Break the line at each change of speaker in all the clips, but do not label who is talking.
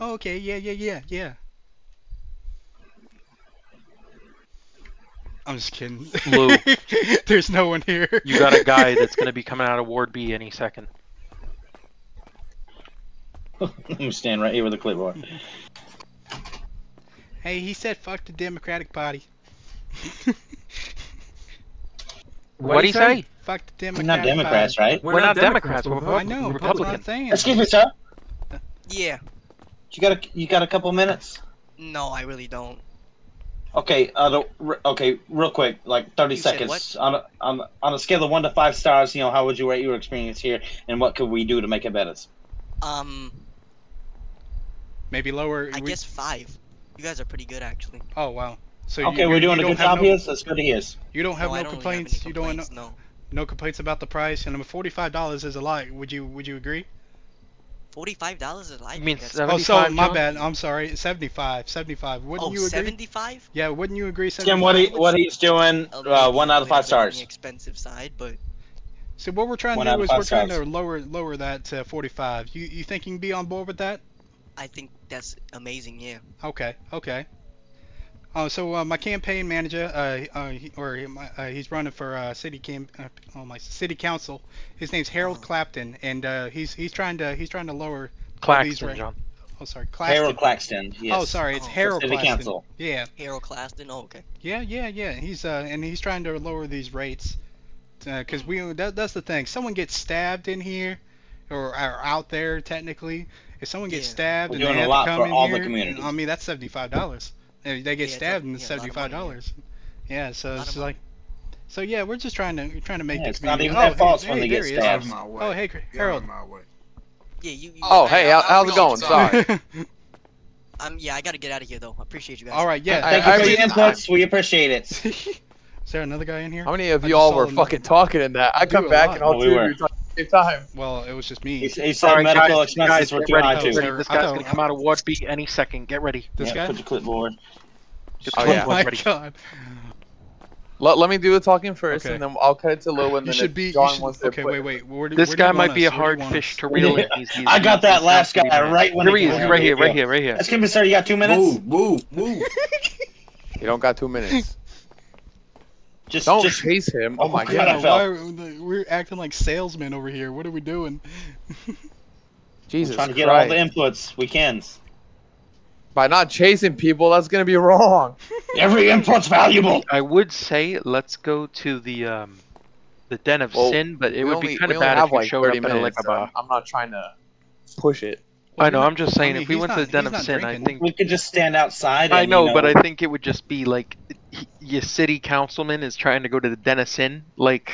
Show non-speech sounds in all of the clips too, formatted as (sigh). Oh, okay. Yeah, yeah, yeah, yeah. I'm just kidding.
Lou.
(laughs) There's no one here.
You got a guy that's going to be coming out of Ward B any second.
(laughs) I'm standing right here with
(laughs)
a clipboard.
(laughs) Hey, he said fuck the Democratic Party. (laughs)
What do you say?
fuck the
We're
Democratic
not Democrats, right?
We're not Democrats, we're
Party. I know. but That's what I'm
Republicans.
saying.
Excuse me, sir.
Yeah.
You got a you got a couple minutes?
No, I really don't.
Okay, uh, the, re- okay, real quick, like thirty
You said
seconds. On a, on a- on a scale of one to five stars, you know, how would you rate your experience here, and what could we do to make it better?
Um,
Maybe lower.
I
we-
guess five. You guys are pretty good, actually.
Oh wow. So you-
Okay,
you-
we're doing
you
a
don't
good
have
job
no,
here. So it's good to hear.
You don't have no,
no, I don't really
complaints.
have any
You don't have no,
complaints, no.
no complaints about the price, and I'm forty-five dollars is a lot. Would you Would you agree?
Forty-five dollars is like.
You mean
that's-
seven-
Oh, so
75,
my
John?
bad. I'm sorry. Seventy-five. Seventy-five. Wouldn't
oh,
you agree?
75?
Yeah. Wouldn't you agree?
Jim,
Seventy-five.
what he, what he's doing?
A
Uh,
little
one out of
bit
five
on The
stars.
expensive side, but
So what we're trying
One
to
out
do
of
is
five
we're trying to
stars.
lower lower that to 45. You you think you can be on board with that?
I think that's amazing. Yeah.
Okay, okay. Uh, so uh, my campaign manager, uh, uh, he, or he- my, uh, he's running for uh, city cam, uh, oh my city council. His name's Harold
Oh.
Clapton, and uh, he's he's trying to he's trying to lower. Please,
Claxton,
Ray.
John.
Oh sorry, Clapton.
Harold Claxton. Yes.
Oh sorry, it's
Oh, for
Harold
City
Clapton.
Council.
Yeah,
Harold Claston. Oh, okay.
yeah, yeah, yeah. He's uh, and he's trying to lower these rates, because we that, that's the thing. Someone gets stabbed in here, or, or out there technically. If someone gets
Yeah.
stabbed
We're
and they
doing a
have
lot
to come
for
in
all the
here, and,
communities.
I mean that's seventy-five dollars. They they get
Yeah, it's a-
stabbed and
yeah,
it's
a lot of money,
seventy-five dollars. Yeah, so
Lot of
it's like, so yeah, we're just trying to trying to make
Yeah,
the
it's not
community.
even
oh,
their
hey,
fault
hey,
when they
there
get
he
Out
is.
of
stabbed.
my way.
Oh hey,
Get out of
Harold.
my way.
Yeah. You. you
Oh, hey, how-
I'm
how's it
really
going?
(laughs)
Sorry.
Um. Yeah, I gotta get out of here though. I appreciate you guys.
All right, yeah.
Thank
I- I
you for your
really-
inputs. We appreciate
(laughs)
it.
is there another guy in here?
How many of
I
you
just
all
saw
were
them.
fucking talking in that? I
We
come
were
back
live.
and all
Oh, we
two
were.
of you talking at the same time.
Well, it was just me.
He,
This
he said
Sorry,
medical
guys,
expenses
guys,
were
get
too high
ready.
to-
too.
Get ready. This guy's
Oh,
going to
I-
come out of Ward B any second. Get ready.
Yeah,
guy.
put your clipboard.
Get
(laughs) Oh,
the
yeah.
my
ready.
god.
Let, let me do the talking first,
Okay.
and then I'll cut it to Lou, and
You
then
should
if
be. You
John
should,
wants to
okay,
put-
wait, wait. Where do,
This
where do you
guy
want
might be a
us? Where do you
hard
want (laughs)
fish
us?
to reel in.
Yeah.
He's, he's,
(laughs) I got that
he's
last
not
guy
gonna be
right when
there
he
he is.
came
He's
out.
right here, right here, right here.
Excuse me, sir. You got two minutes.
Move, move, move.
You don't got two minutes.
Just,
(laughs) Don't
just
chase him. Oh my
Oh,
Yeah,
God. NFL.
god.
why are, we- we're acting like salesmen over here. What are we doing?
Jesus
trying to
Christ.
get all the inputs we can.
By not chasing people, that's gonna be wrong.
Every input's valuable.
I would say let's go to the um, the Den of
Well,
Sin, but it
We
would
only-
be kind
we
of
only
bad
have
if you
like
showed up
30
in a, like
minutes, uh,
a.
so I'm not trying to push it.
I know. I'm just saying,
mean,
if we
he's
went to
not-
the Den
he's
of
not
Sin, I
drinking.
think
We could just stand outside.
I
and,
know,
you
but I think it would just be like y- your city councilman is trying to go to the Denison. Like,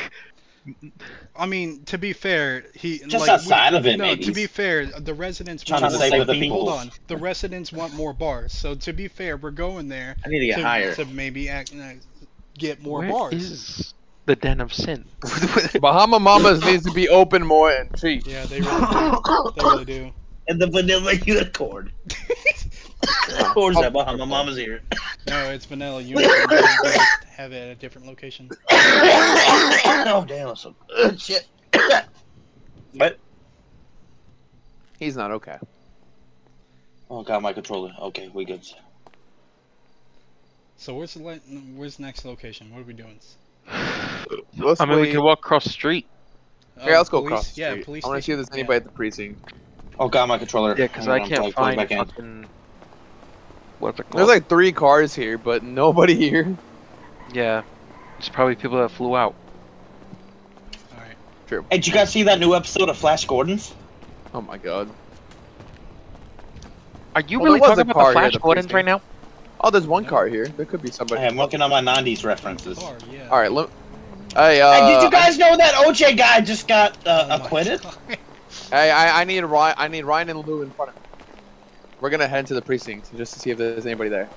I mean, to be fair, he
just
like, we-
outside of it.
No,
maybe.
to be fair, the residents
Trying
want
to
more
save the
bars.
people.
Hold on, the residents want more bars. So to be fair, we're going there
I need to get
to,
higher.
to maybe act, uh, get more
where
bars.
is the Den of Sin?
(laughs) Bahama Mamas needs to be open more and cheap.
Yeah, they really do. they really do.
and the vanilla (laughs)
(laughs)
unicorn. of course,
Oh.
that behind my
(coughs)
mama's ear.
No, it's vanilla
(laughs)
unicorn. they just have it at a different location.
oh damn! That's some
uh,
good shit. what?
He's not okay.
Oh god, my controller. Okay, we good.
So where's the li- where's the next location? What are we doing?
Let's
I mean, we
wait.
can walk across the street.
Here,
Oh,
let's go
police-
across. The
yeah,
street.
police.
I want to see if
station.
there's
Yeah.
anybody at the precinct.
Oh god, my controller.
Yeah, because
Hang
I
on, I'm
can't
plugged
find
back in.
fucking. What's it
There's
called?
like three cars here, but nobody (laughs) here.
yeah, it's probably people that flew out.
All right.
Hey, did you guys see that new episode of Flash Gordon's?
Oh my god.
Are you
Well,
really
there was
talking
a
about
car
the
here
Flash
at the
Gordons right now?
Oh, there's one car here. There could be somebody.
Hey, I'm working on my '90s references.
Car, yeah.
All right, look. Hey, uh,
hey, did you guys know that OJ guy just got uh,
Oh my
acquitted?
God.
hey, I, I need Ryan. I need Ryan and Lou in front of me. We're gonna head to the precinct just to see if there's anybody there.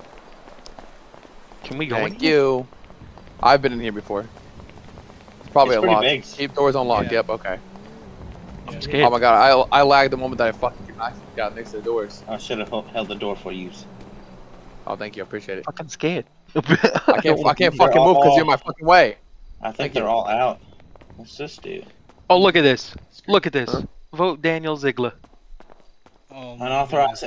Can we go in?
Thank you. I've been in here before. It's probably
It's pretty
unlocked.
big.
Keep doors unlocked.
Yeah.
Yep. Okay.
Yeah.
Scared.
Oh my god, I I lagged the moment that I fucking I got next to the doors.
I should have held the door for you.
Oh, thank you. I appreciate it.
fucking scared.
(laughs)
(laughs)
(laughs)
I can't I can't
They're
fucking move
all-
because you're in my fucking way.
I think
Thank
they're
you.
all out. What's this dude?
oh, look at this. Look at this.
Huh?
Vote Daniel Ziegler.
(laughs) Oh my God.
Unauthorized